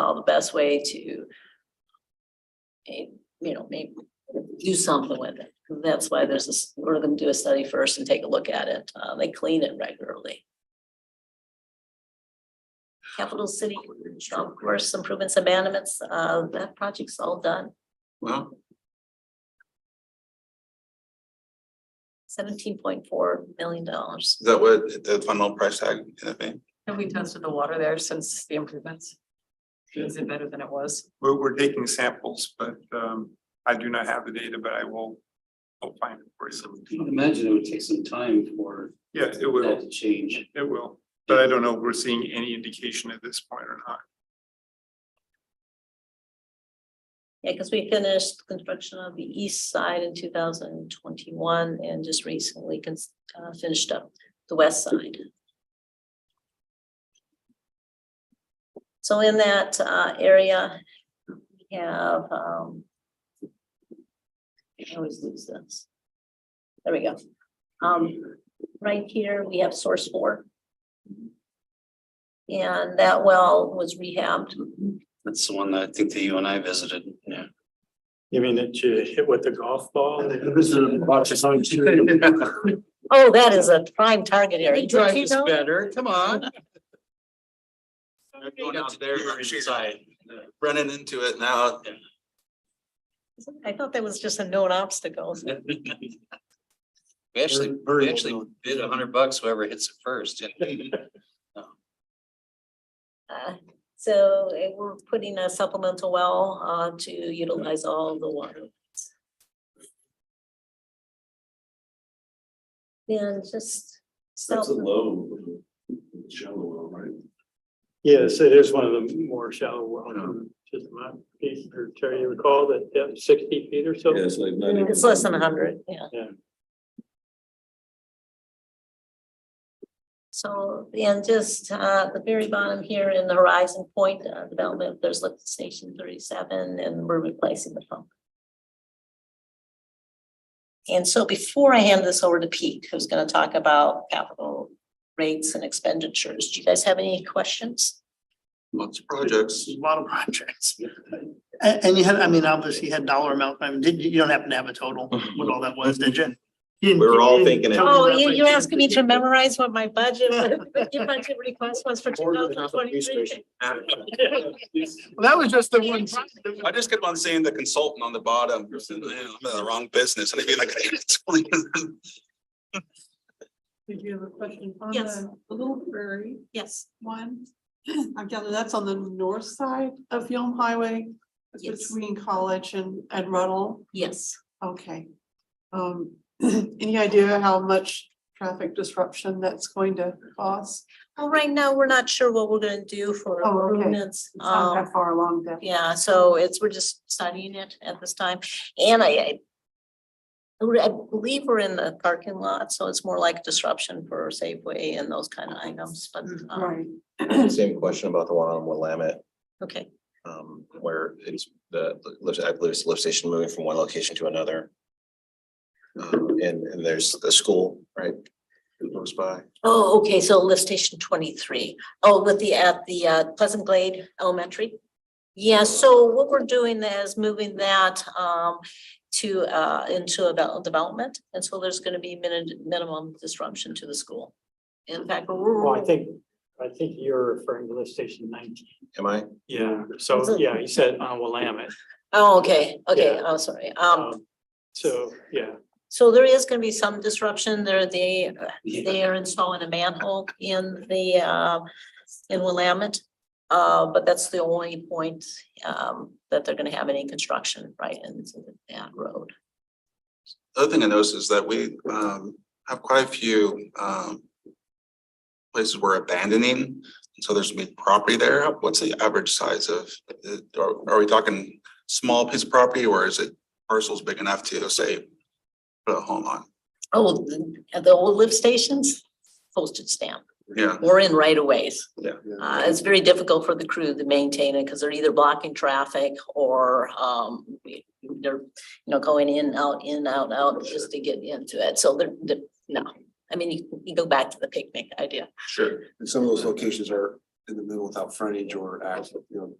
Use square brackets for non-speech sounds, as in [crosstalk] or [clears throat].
how the best way to eh, you know, maybe do something with it. That's why there's this, we're gonna do a study first and take a look at it. Uh, they clean it regularly. Capital City, of course, improvements, abandonments, uh, that project's all done. Well, Seventeen point four million dollars. is that what the final price tag gonna be? Have we tested the water there since the improvements? Is it better than it was? We're, we're taking samples, but um, I do not have the data, but I will, I'll find it for I you. would imagine it would take some time for Yeah, it that will, to change. it will, but I don't know if we're seeing any indication at this point or not. Yeah, because we finished construction of the east side in two thousand and twenty-one and just recently cons- uh, finished up the west side. So in that uh, area, we have um, I always lose this. There we go. Um, right here, we have source four. And that well was rehabbed. That's the one that I think that you and I visited, yeah. You mean that you hit with the golf ball? Oh, that is a prime target area. Did you know? better, come on. Going out there, [laughs] running into it now. I thought that was just a known obstacle. We actually, we actually bid a hundred bucks whoever hits it first. Uh, So eh, we're putting a supplemental well uh, to utilize all the water. And just self, low, shallow well, right? Yes, it is one of the more shallow wells. Just my piece, or Terry, you recall that depth sixty feet or so? it's like not it's less than a hundred, yeah. Yeah. So, and just uh, the very bottom here in the Horizon Point uh, development, there's lift station thirty-seven and we're replacing the pump. And so before I hand this over to Pete, who's gonna talk about capital rates and expenditures, do you guys have any questions? Lots of projects. A lot of projects. And, and you had, I mean, obviously you had dollar amount, I mean, did, you don't happen to have a total, what all that was, did you? We were all thinking it. Oh, you, you're asking me to memorize what my budget, your budget request was for two More than thousand enough police twenty-three? station. That was just the one. I just kept on seeing the consultant on the bottom. I'm in the wrong business. [laughs] And I'd be like, Did you have a question? on Yes. the Little Prairie Yes, one, [clears throat] I gather that's on the north side of Yelm Highway. It's Yes. Between College and, and Ruddle, yes. okay. Um, [clears throat] any idea how much traffic disruption that's going to cause? Well, right now, we're not sure what we're gonna do for Oh, okay. improvements. It's not Um, that far along that. yeah, so it's, we're just studying it at this time. And I, I I believe we're in the parking lot, so it's more like disruption for Safeway and those kind of items, but, um, Mm, Right, Same question about the one on Willamette, okay. um, where it's the, lift- I believe it's the lift station moving from one location to another. Um, and, and there's the school, right? Who goes by? Oh, okay, so lift station twenty-three. Oh, with the, at the uh, Pleasant Glade Elementary? Yeah, so what we're doing is moving that um to uh into a devel- development. And so there's gonna be min- minimum disruption to the school. In fact, we're. Well, I think, I think you're referring to lift station nineteen. Am I? Yeah, so, yeah, he said on Willamette. Oh, okay, okay, Yeah. oh, sorry. Um, Um, So, yeah, so there is gonna be some disruption there. They they are installing a manhole in the, uh, in Willamette. Uh, but that's the only point, um, that they're gonna have any construction right into that road. The other thing I noticed is that we um have quite a few um. Places we're abandoning, so there's big property there. What's the average size of, uh, are are we talking small piece of property or is it parcels big enough to say? Put a home on, Oh, the, the old lift stations, postage stamp, yeah, we're in right of ways. Yeah. Uh, it's very difficult for the crew to maintain it because they're either blocking traffic or, um, they're, you know, going in, out, in, out, out, just to get into it. So they're, they're, no. I mean, you, you go back to the picnic idea. sure. And some of those locations are in the middle without frontage or access, you know,